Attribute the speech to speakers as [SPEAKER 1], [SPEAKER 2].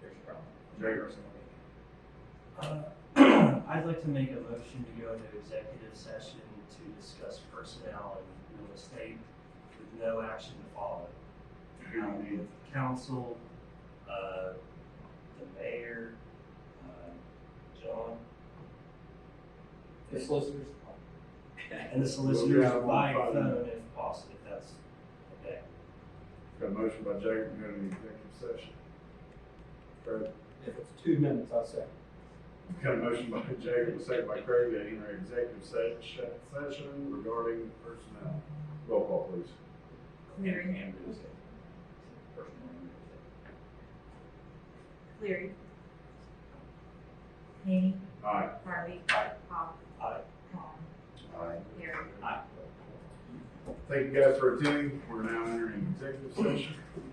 [SPEAKER 1] serious problem, very personal.
[SPEAKER 2] Uh, I'd like to make a motion to go into executive session to discuss personnel and real estate with no action to follow. Um, With council, uh, the mayor, uh, John,
[SPEAKER 3] The solicitors.
[SPEAKER 2] and the solicitors
[SPEAKER 1] We'll be out
[SPEAKER 2] by
[SPEAKER 1] on Friday.
[SPEAKER 2] phone if possible, if that's okay.
[SPEAKER 1] Got a motion by Jacob, go into executive session. Craig,
[SPEAKER 3] If it's two minutes, I'll say.
[SPEAKER 1] got a motion by Jacob, a second by Craig, to enter executive session, session regarding personnel. Roll call, please.
[SPEAKER 4] Cleary.
[SPEAKER 1] And real estate. Personnel and real estate.
[SPEAKER 4] Cleary. Hany.
[SPEAKER 1] Aye.
[SPEAKER 4] Harvey.
[SPEAKER 2] Aye.
[SPEAKER 4] Hawk.
[SPEAKER 2] Aye.
[SPEAKER 4] Vaughn.
[SPEAKER 1] Aye.
[SPEAKER 4] Harry.
[SPEAKER 1] Thank you guys for attending. We're now entering executive session.